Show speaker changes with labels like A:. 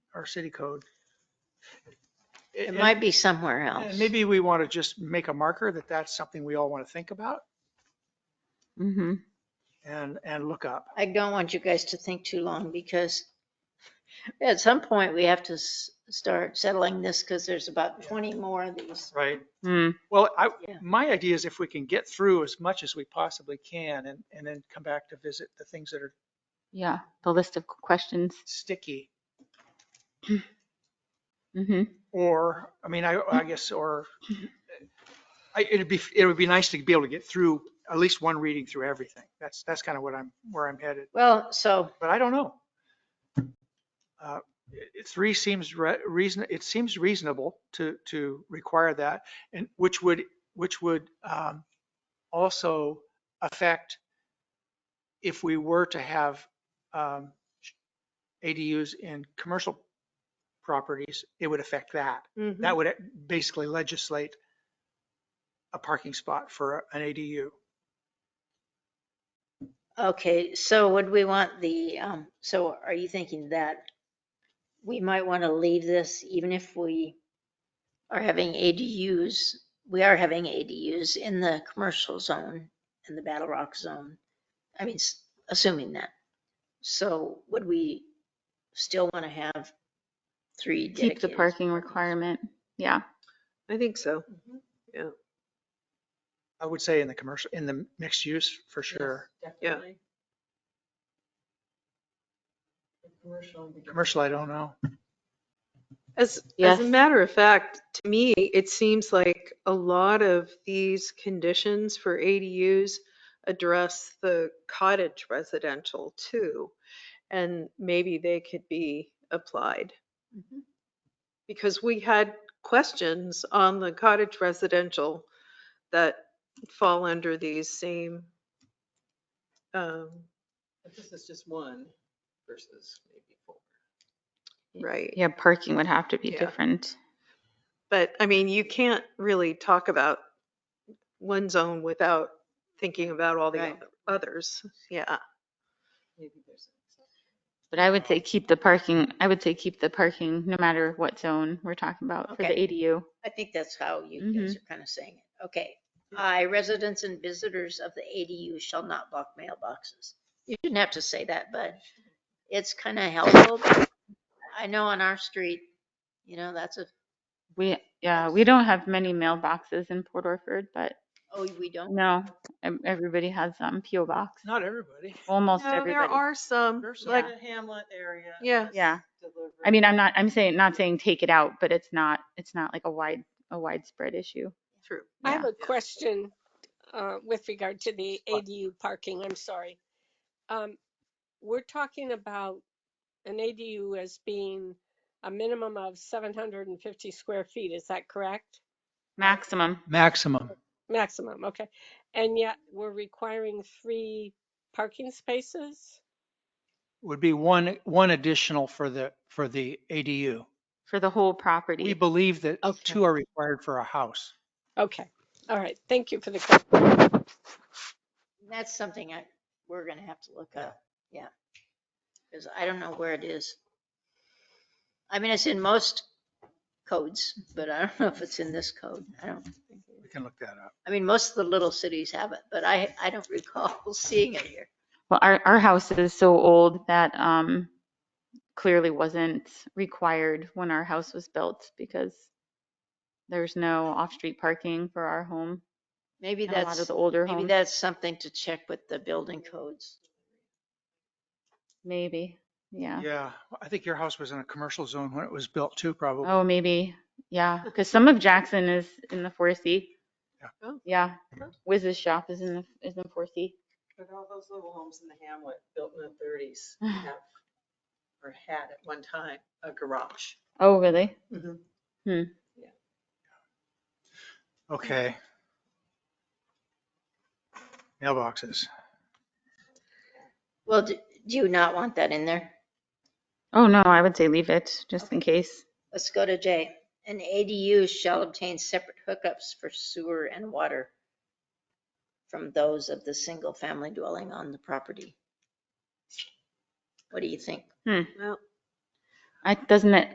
A: our city code.
B: It might be somewhere else.
A: And maybe we want to just make a marker that that's something we all want to think about
B: hmm
A: and, and look up.
B: I don't want you guys to think too long because at some point we have to s- start settling this because there's about 20 more of these.
A: Right.
C: Mm,
A: Well, I,
B: Yeah.
A: my idea is if we can get through as much as we possibly can and, and then come back to visit the things that are
C: yeah, the list of questions.
A: sticky.
C: hmm
A: Or, I mean, I, I guess, or I, it'd be, it would be nice to be able to get through at least one reading through everything. That's, that's kind of what I'm, where I'm headed,
B: Well, so
A: but I don't know. Uh, it- Three seems re- reason, it seems reasonable to, to require that and which would, which would um, also affect if we were to have um, ADUs in commercial properties, it would affect that
B: mm-hmm.
A: that would basically legislate a parking spot for an ADU.
B: Okay, so would we want the, um, so are you thinking that we might want to leave this even if we are having ADUs, we are having ADUs in the commercial zone, in the Battle Rock zone? I mean, s- assuming that. So would we still want to have three
C: Keep the
B: dedicated?
C: parking requirement. Yeah.
D: I think so.
A: I would say in the commercial, in the mixed use for sure.
D: Yeah.
A: Commercial, I don't know.
D: As, as
C: Yes.
D: a matter of fact, to me, it seems like a lot of these conditions for ADUs address the cottage residential too. And maybe they could be applied.
B: Mhm.
D: Because we had questions on the cottage residential that fall under these same. um,
E: But this is just one versus maybe four.
D: Right.
C: Yeah, parking would have to be
D: Yeah.
C: different.
D: But I mean, you can't really talk about one zone without thinking about all the
B: Right.
D: oth- others. Yeah.
E: Maybe there's an exception.
C: But I would say keep the parking, I would say keep the parking no matter what zone we're talking about for the
B: Okay.
C: ADU.
B: I think that's how you guys are kind of saying it. Okay. I, residents and visitors of the ADU shall not block mailboxes. You didn't have to say that, but it's kind of helpful. I know on our street, you know, that's a,
C: We, yeah, we don't have many mailboxes in Port Orford, but
B: oh, we don't.
C: no, em- everybody has um PO box.
A: Not everybody.
C: Almost
D: No, there
C: everybody.
D: are some,
A: There's some.
D: like,
E: The Hamlet area.
D: yeah.
C: Yeah.
E: Delivery.
C: I mean, I'm not, I'm saying, not saying take it out, but it's not, it's not like a wide, a widespread issue.
D: True.
F: I
C: Yeah.
F: have a question uh, with regard to the ADU parking, I'm sorry. Um, We're talking about an ADU as being a minimum of 750 square feet, is that correct?
C: Maximum.
A: Maximum.
F: Maximum, okay. And yet we're requiring three parking spaces?
A: Would be one, one additional for the, for the ADU.
C: for the whole
A: We
C: property.
A: believe that
F: Okay.
A: two are required for a house.
F: Okay, all right, thank you for the question.
B: That's something I, we're gonna have to look up. Yeah. Because I don't know where it is. I mean, it's in most codes, but I don't know if it's in this code. I don't.
A: We can look that up.
B: I mean, most of the little cities have it, but I, I don't recall seeing it here.
C: Well, our, our house is so old that um, clearly wasn't required when our house was built because there's no off-street parking for our home.
B: Maybe
C: And a lot
B: that's,
C: of the older
B: maybe
C: homes,
B: that's something to check with the building codes.
C: maybe, yeah.
A: Yeah, I think your house was in a commercial zone when it was built too, probably.
C: Oh, maybe, yeah, because some of Jackson is in the 4C.
A: Yeah.
D: Oh.
C: Yeah,
D: Huh.
C: Wiz's shop is in, the is in 4C.
E: But all those little homes in the Hamlet built in the thirties have, or had at one time, a garage.
C: Oh, really?
D: Mm-hmm.
A: Okay. Mailboxes.
B: Well, do do you not want that in there?
C: Oh, no, I would say leave it, just in case.
B: Let's go to J. An ADU shall obtain separate hookups for sewer and water from those of the single family dwelling on the property. What do you think?
D: Well,
C: I, doesn't it